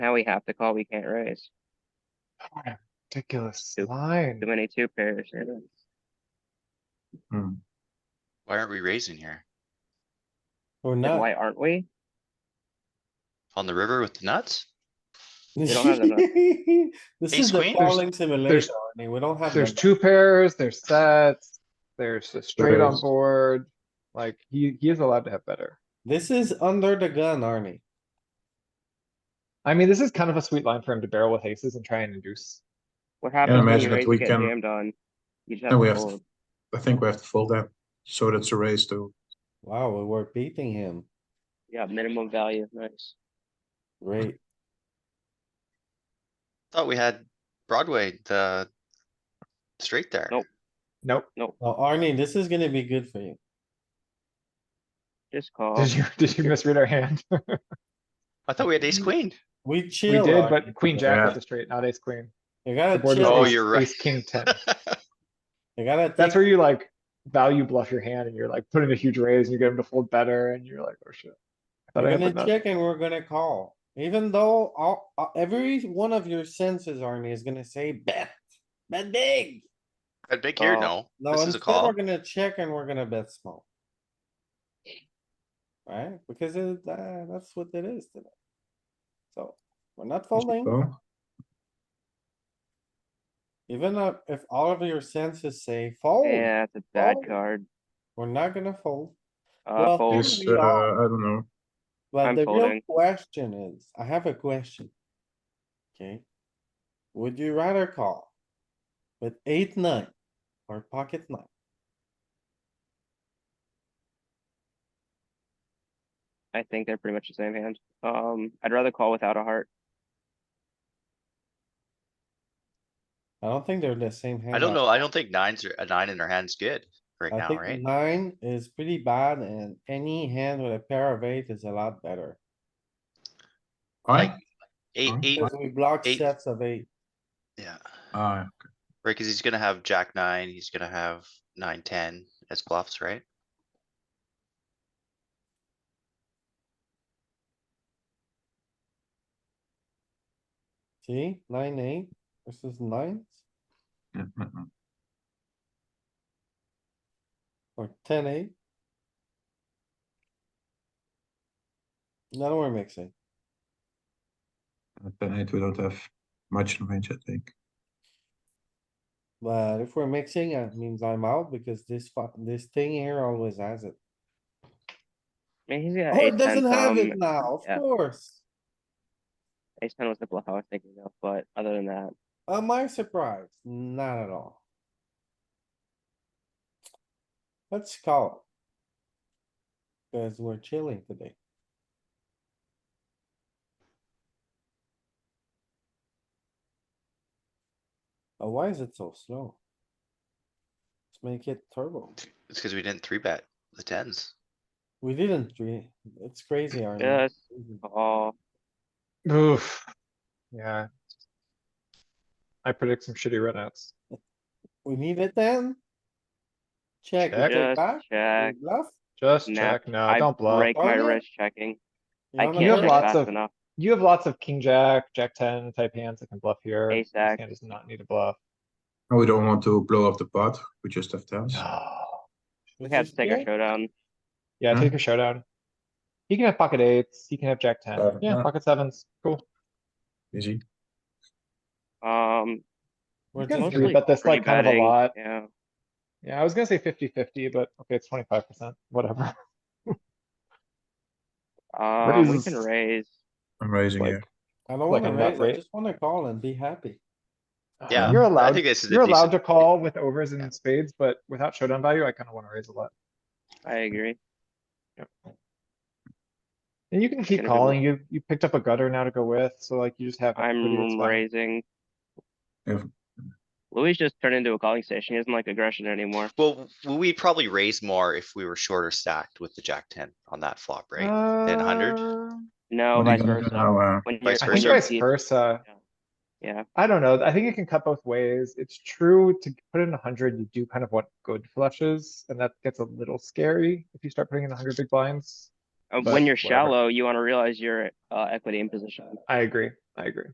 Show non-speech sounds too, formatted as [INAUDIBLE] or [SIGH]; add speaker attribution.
Speaker 1: Now we have to call, we can't raise.
Speaker 2: Ridiculous
Speaker 1: Yep.
Speaker 2: line.
Speaker 1: Too many two pairs. here.
Speaker 3: Hmm.
Speaker 4: Why aren't we raising here?
Speaker 5: Or
Speaker 1: Like,
Speaker 5: [LAUGHS] not.
Speaker 1: Why aren't we?
Speaker 4: On the river with the nuts?
Speaker 1: They don't have
Speaker 5: This
Speaker 4: Ace
Speaker 5: is the
Speaker 4: queen?
Speaker 5: falling simulator,
Speaker 2: there's-
Speaker 5: Arnie. We don't have.
Speaker 2: There's
Speaker 5: that.
Speaker 2: two pairs, there's sets, there's a straight on
Speaker 3: is.
Speaker 2: board. Like, he, he is allowed to have better.
Speaker 5: This is under the gun, Arnie.
Speaker 2: I mean, this is kind of a sweet line for him to barrel with aces and try and induce.
Speaker 1: What happens when
Speaker 3: imagine
Speaker 1: you
Speaker 3: if
Speaker 1: raise
Speaker 3: we
Speaker 1: get
Speaker 3: can-
Speaker 1: jammed on? You just
Speaker 3: No,
Speaker 1: have
Speaker 3: we
Speaker 1: to
Speaker 3: have to-
Speaker 1: fold.
Speaker 3: I think we have to fold that, so that's a raise too.
Speaker 5: Wow, we were beating him.
Speaker 1: Yeah, minimum value, nice.
Speaker 5: Great.
Speaker 4: Thought we had Broadway, the straight there.
Speaker 1: Nope.
Speaker 2: Nope.
Speaker 5: Now, Arnie, this is gonna be good for you.
Speaker 1: Just call.
Speaker 4: Oh.
Speaker 2: Did you, did you misread our hand? [LAUGHS]
Speaker 4: I thought we had ace queen.
Speaker 5: We
Speaker 2: We
Speaker 5: chill.
Speaker 2: did,
Speaker 5: Arnie.
Speaker 2: but queen jack
Speaker 3: Yeah.
Speaker 2: was a straight, not ace queen.
Speaker 5: You
Speaker 2: The
Speaker 5: gotta
Speaker 2: board was
Speaker 4: Oh,
Speaker 5: chill.
Speaker 2: ace-
Speaker 4: you're right.
Speaker 2: ace King ten.
Speaker 5: You gotta.
Speaker 2: That's
Speaker 5: think-
Speaker 2: where you like value bluff your hand and you're like putting a huge raise and you get him to fold better and you're like, oh shit. Thought I
Speaker 5: We're
Speaker 2: had the
Speaker 5: gonna
Speaker 2: nuts.
Speaker 5: check and we're gonna call, even though all, uh, every one of your senses, Arnie, is gonna say bet, bet big.
Speaker 4: I big here, no.
Speaker 1: Call.
Speaker 5: Oh. No,
Speaker 4: This is a
Speaker 5: instead we're
Speaker 4: call.
Speaker 5: gonna check and we're gonna bet small. Right, because it, uh, that's what it is today. So, we're not folding,
Speaker 3: So,
Speaker 5: even if, if all of your senses say fold,
Speaker 1: Yeah, it's a bad
Speaker 5: Fold.
Speaker 1: card.
Speaker 5: we're not gonna fold.
Speaker 1: Uh,
Speaker 5: Well,
Speaker 1: fold.
Speaker 3: Is,
Speaker 5: we
Speaker 3: uh,
Speaker 5: are.
Speaker 3: I don't know,
Speaker 5: But
Speaker 1: I'm
Speaker 5: the real
Speaker 1: folding.
Speaker 5: question is, I have a question. Okay? Would you rather call with eight, nine or pocket nine?
Speaker 1: I think they're pretty much the same hand. Um, I'd rather call without a heart.
Speaker 5: I don't think they're the same hand.
Speaker 4: I don't know. I don't think nines are, a nine in our hand's good right
Speaker 5: I
Speaker 4: now,
Speaker 5: think
Speaker 4: right?
Speaker 5: nine is pretty bad and any hand with a pair of eight is a lot better.
Speaker 3: I,
Speaker 4: Eight,
Speaker 3: Nine?
Speaker 4: eight,
Speaker 5: Because we block
Speaker 4: eight.
Speaker 5: sets of eight.
Speaker 4: yeah.
Speaker 3: I,
Speaker 4: Right, cuz he's gonna have jack nine, he's gonna have nine, ten as bluffs, right?
Speaker 5: See, nine, eight versus nines or ten, eight. Now we're mixing.
Speaker 3: ten eight, we don't have much range, I think.
Speaker 5: But if we're mixing, it means I'm out because this fu- this thing here always has it.
Speaker 1: I mean, he's got
Speaker 5: Oh, it
Speaker 1: ace ten
Speaker 5: doesn't have it
Speaker 1: from,
Speaker 5: now,
Speaker 1: yeah.
Speaker 5: of course.
Speaker 1: ace ten was the bluff I was thinking of, but other than that,
Speaker 5: Am I surprised? Not at all. Let's call. it. Cause we're chilling today. Oh, why is it so slow? Let's make it turbo.
Speaker 4: It's cuz we didn't three bet the tens.
Speaker 5: We didn't, re- it's crazy, Arnie.
Speaker 1: just
Speaker 5: Crazy.
Speaker 1: call.
Speaker 2: Oof. Yeah. I predict some shitty runouts.
Speaker 5: We need it then? Check, we
Speaker 2: Check.
Speaker 5: go
Speaker 1: Just
Speaker 5: back,
Speaker 1: check.
Speaker 5: we bluff.
Speaker 2: Just
Speaker 1: Nah,
Speaker 2: check, no,
Speaker 1: I
Speaker 2: don't bluff.
Speaker 1: break my
Speaker 5: Arnie?
Speaker 1: wrist checking.
Speaker 5: You
Speaker 1: I
Speaker 5: wanna
Speaker 1: can't
Speaker 5: check?
Speaker 1: check
Speaker 2: lots
Speaker 1: fast
Speaker 2: of-
Speaker 1: enough.
Speaker 2: You have lots of king jack, jack ten type hands that can bluff here.
Speaker 1: Ace
Speaker 2: This
Speaker 1: jack.
Speaker 2: hand does not need a bluff.
Speaker 3: No, we don't want to blow up the pot, we just have tens.
Speaker 1: We
Speaker 5: This
Speaker 1: have
Speaker 5: is
Speaker 1: to take our
Speaker 5: good.
Speaker 1: showdown.
Speaker 2: Yeah,
Speaker 3: Hmm.
Speaker 2: take a showdown. He can have pocket eights, he can have jack ten,
Speaker 3: Seven,
Speaker 2: yeah,
Speaker 3: yeah.
Speaker 2: pocket sevens, cool.
Speaker 3: Easy,
Speaker 1: Um,
Speaker 5: We're
Speaker 2: You can
Speaker 5: just-
Speaker 2: three bet this
Speaker 1: pretty
Speaker 2: like kind of a
Speaker 1: betting,
Speaker 2: lot.
Speaker 1: Yeah,
Speaker 2: Yeah, I was gonna say fifty fifty, but okay, it's twenty-five percent, whatever.
Speaker 1: um, we
Speaker 2: is-
Speaker 1: can raise.
Speaker 3: I'm raising
Speaker 2: Like,
Speaker 3: here.
Speaker 5: I don't
Speaker 2: Like
Speaker 5: wanna
Speaker 2: I'm not
Speaker 5: raise, I
Speaker 2: right.
Speaker 5: just wanna call and be happy.
Speaker 4: Yeah,
Speaker 2: You're
Speaker 4: I
Speaker 2: allowed,
Speaker 4: think this is a
Speaker 2: you're allowed to
Speaker 4: decent-
Speaker 2: call with overs and spades, but without showdown value, I kinda wanna raise a lot.
Speaker 1: I agree.
Speaker 2: And you can keep
Speaker 1: gonna be more-
Speaker 2: calling, you, you picked up a gutter now to go with, so like you just have. equity, it's
Speaker 1: I'm
Speaker 2: fine.
Speaker 1: raising.
Speaker 3: Yeah.
Speaker 1: Louis just turned into a calling station. He doesn't like aggression anymore.
Speaker 4: Well, w- we'd probably raise more if we were shorter stacked with the jack ten on that flop, right? 100?
Speaker 2: Uh,
Speaker 1: No,
Speaker 3: What are
Speaker 1: vice
Speaker 3: you gonna do
Speaker 1: versa.
Speaker 3: now, uh,
Speaker 1: When you're-
Speaker 4: Vice
Speaker 2: I
Speaker 1: when
Speaker 2: think
Speaker 4: versa?
Speaker 1: you're
Speaker 2: vice
Speaker 1: deep-
Speaker 2: versa.
Speaker 1: Yeah,
Speaker 2: I don't know. I think it can cut both ways. It's true to put in a hundred, you do kind of want good flushes, and that gets a little scary if you start putting in a hundred big blinds.
Speaker 1: Uh,
Speaker 2: But
Speaker 1: when you're
Speaker 2: whatever.
Speaker 1: shallow, you wanna realize your, uh, equity in position.
Speaker 2: I agree. I agree.